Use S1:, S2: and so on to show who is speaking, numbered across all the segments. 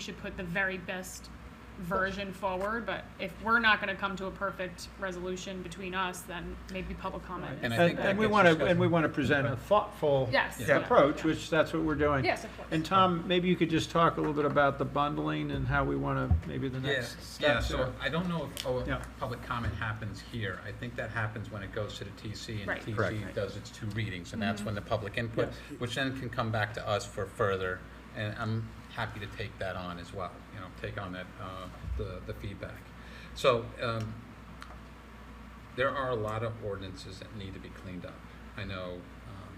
S1: we should put the very best version forward, but if we're not gonna come to a perfect resolution between us, then maybe public comment.
S2: And I
S1: is
S2: think
S3: And,
S1: the-
S2: that
S3: and we
S2: gets
S3: want to,
S2: discussed.
S3: and we want to present a thoughtful
S1: Yes, yeah,
S3: approach,
S1: yeah.
S3: which that's what we're doing.
S1: Yes, of course.
S3: And Tom, maybe you could just talk a little bit about the bundling and how we want to, maybe the
S2: Yeah,
S3: next
S2: yeah,
S3: steps.
S2: so
S3: there.
S2: I don't know if oh,
S3: Yeah.
S2: public comment happens here. I think that happens when it goes to the TC and
S1: Right.
S2: the
S1: Correct.
S2: TC does its two readings. And that's when the public input, which then can come back to us for further. And I'm happy to take that on as well, you know, take on that, uh, the, the feedback. So um, there are a lot of ordinances that need to be cleaned up. I know um,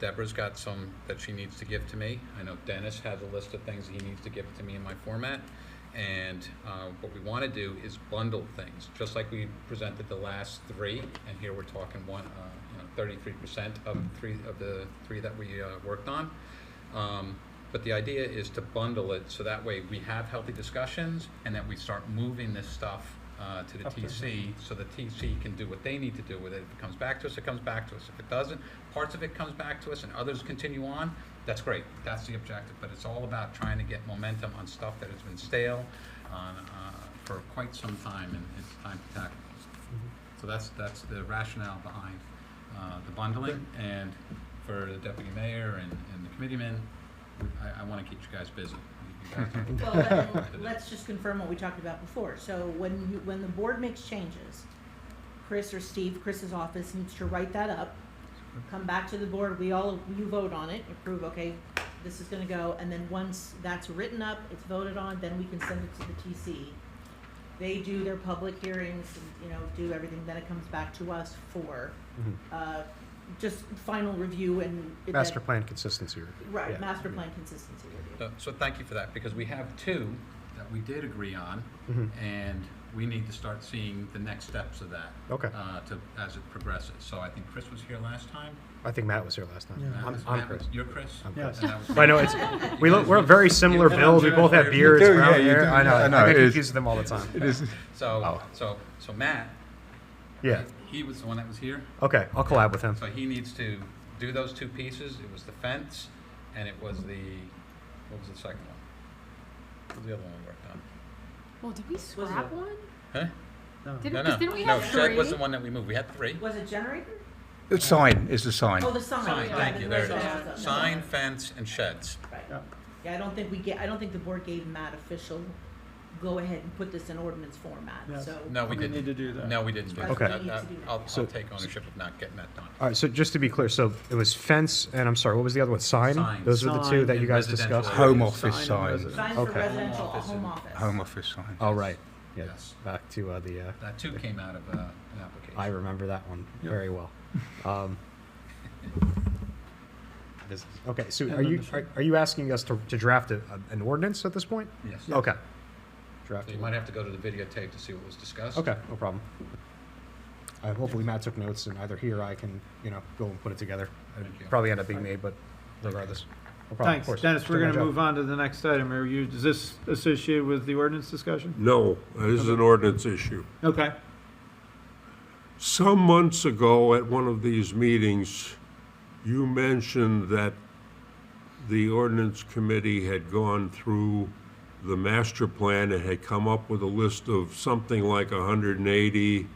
S2: Deborah's got some that she needs to give to me. I know Dennis has a list of things he needs to give to me in my format. And uh, what we want to do is bundle things, just like we presented the last three, and here we're talking one, uh, you know, 33% of three of the three that we uh, worked on. Um, But the idea is to bundle it, so that way we have healthy discussions, and that we start moving this stuff uh, to the
S3: Up to
S2: TC, so the TC can do what they need to do with it. If it comes back to us, it comes back to us. If it doesn't, parts of it comes back to us and others continue on, that's great. That's the objective, but it's all about trying to get momentum on stuff that has been stale on, uh, for quite some time, and it's time to tackle. So that's, that's the rationale behind uh, the bundling, and for the deputy mayor and, and the committeemen, I, I want to keep you guys busy. You guys are-
S4: Well, but then let's just confirm what we talked about before. So when you, when the board makes changes, Chris or Steve, Chris's office needs to write that up, come back to the board, we all, you vote on it, approve, okay, this is gonna go, and then once that's written up, it's voted on, then we can send it to the TC. They do their public hearings, and, you know, do everything, then it comes back to us for, uh, just final review and.
S5: Master plan consistency review.
S4: Right,
S5: Yeah.
S4: master plan consistency review.
S2: So- So thank you for that, because we have two that we did agree on,
S5: Mhm.
S2: and we need to start seeing the next steps of that.
S5: Okay.
S2: uh, To, as it progresses. So I think Chris was here last time.
S5: I think Matt was here last time.
S3: Yeah.
S2: Matt
S5: I'm,
S2: was-
S5: I'm
S2: Matt was-
S5: Chris.
S2: You're Chris?
S5: I'm
S2: And
S3: Chris.
S2: that was-
S5: But I know it's, we look, we're a very similar
S2: You-
S5: build. We both have beards,
S6: do,
S5: brown
S6: yeah, you
S5: hair.
S6: do.
S5: I know.
S6: I know,
S5: I
S6: it is.
S5: confuse them all the time.
S6: It is.
S2: So,
S5: Oh.
S2: so, so Matt,
S5: Yeah.
S2: he was the one that was here,
S5: Okay. I'll collab with him.
S2: so he needs to do those two pieces. It was the fence, and it was the, what was the second one? What was the other one we worked on?
S1: Well, did we
S4: it-
S1: scrap one?
S2: Huh?
S3: No.
S1: Didn't,
S2: No,
S1: 'cause
S2: no,
S1: didn't we
S2: no,
S1: have
S2: shed was the
S1: three?
S2: one that we moved. We had three.
S4: Was it generator?
S6: The sign is the sign.
S4: Oh, the sign.
S2: Sign,
S4: yeah,
S2: thank you, there it
S4: yeah, yeah.
S2: is. Sign, fence, and sheds.
S4: Right.
S3: Yeah.
S4: Yeah, I don't think we get, I don't think the board gave Matt official, go ahead and put this in ordinance format,
S3: Yes.
S4: so.
S2: No, we
S3: We need to
S2: didn't.
S3: do that.
S2: No, we didn't. do
S4: Okay.
S2: that.
S4: We need to do that.
S2: I'll, I'll
S5: So-
S2: take ownership of not getting that done.
S5: All right. So just to be clear, so it was fence, and I'm sorry, what was the other one? Sign?
S2: Sign.
S5: Those were the two
S3: Sign
S5: that you
S2: and
S5: guys
S2: residential.
S5: discussed?
S6: Home office
S3: Sign and
S6: sign.
S3: residence.
S4: Signs for
S5: Okay.
S4: residential,
S2: Home office
S4: home
S2: and-
S4: office.
S6: Home office sign.
S5: Oh, right. Yeah.
S2: Yes.
S5: Back to uh, the, uh,
S2: That too came out of uh, an application.
S5: I remember that one
S3: Yep.
S5: very well. Um, this- Okay, so
S3: And
S5: are
S3: then
S5: you,
S3: the sh-
S5: are- are you asking us to, to draft a- an ordinance at this point?
S2: Yes. So
S5: Okay. Draft.
S2: you might have to go to the videotape to see what was discussed.
S5: Okay, no problem. Uh, hopefully Matt took notes and either here or I can, you know, go and put it together.
S2: Thank you.
S5: It'll Probably end up being me, but regardless. No problem, of
S3: Thanks.
S5: course.
S3: Dennis, we're
S5: Doing
S3: going
S5: my
S3: to
S5: job.
S3: move on to the next item. Are you, is this associated with the ordinance discussion?
S7: No, this is an ordinance issue.
S3: Okay.
S7: Some months ago, at one of these meetings, you mentioned that the ordinance committee had gone through the master plan and had come up with a list of something like 180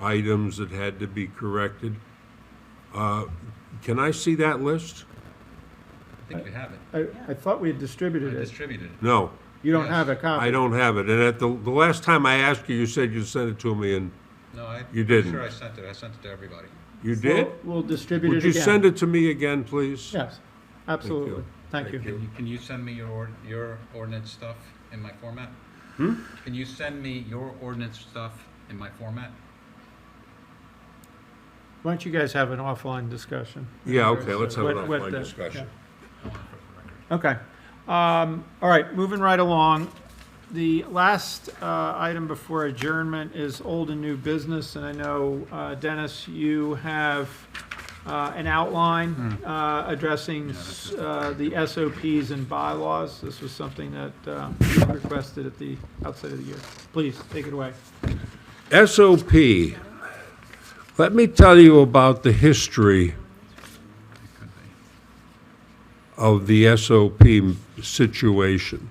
S7: items that had to be corrected. Uh, Can I see that list?
S2: I think we have it.
S3: I, I thought we had
S2: I
S3: distributed it.
S2: distributed it.
S7: No,
S3: You don't
S2: Yes.
S3: have a copy.
S7: I don't have it. And at the, the last time I asked you, you said you sent it to me, and
S2: No, I.
S7: You didn't.
S2: Sure, I sent it. I sent it to everybody.
S7: you did?
S3: We'll we'll distribute it
S7: Would
S3: again.
S7: you send it to me again, please?
S3: Yes, absolutely.
S7: you.
S3: Thank you.
S2: Can you, can you send me your, ord- your ordinance stuff in my format?
S5: Hmm?
S2: Can you send me your ordinance stuff in my format?
S3: Why don't you guys have an offline discussion?
S7: Yeah, okay, let's have an
S3: With- with
S7: offline
S3: the-
S7: discussion.
S2: I want it for the
S3: Okay.
S2: record.
S3: Um, All right, moving right along. The last uh, item before adjournment is old and new business, and I know, uh, Dennis, you have uh, an outline uh, addressing uh, the SOPs and bylaws. This was something that uh, you requested at the outset of the year. Please, take it away.
S7: SOP. Let me tell you about the history of the SOP situation.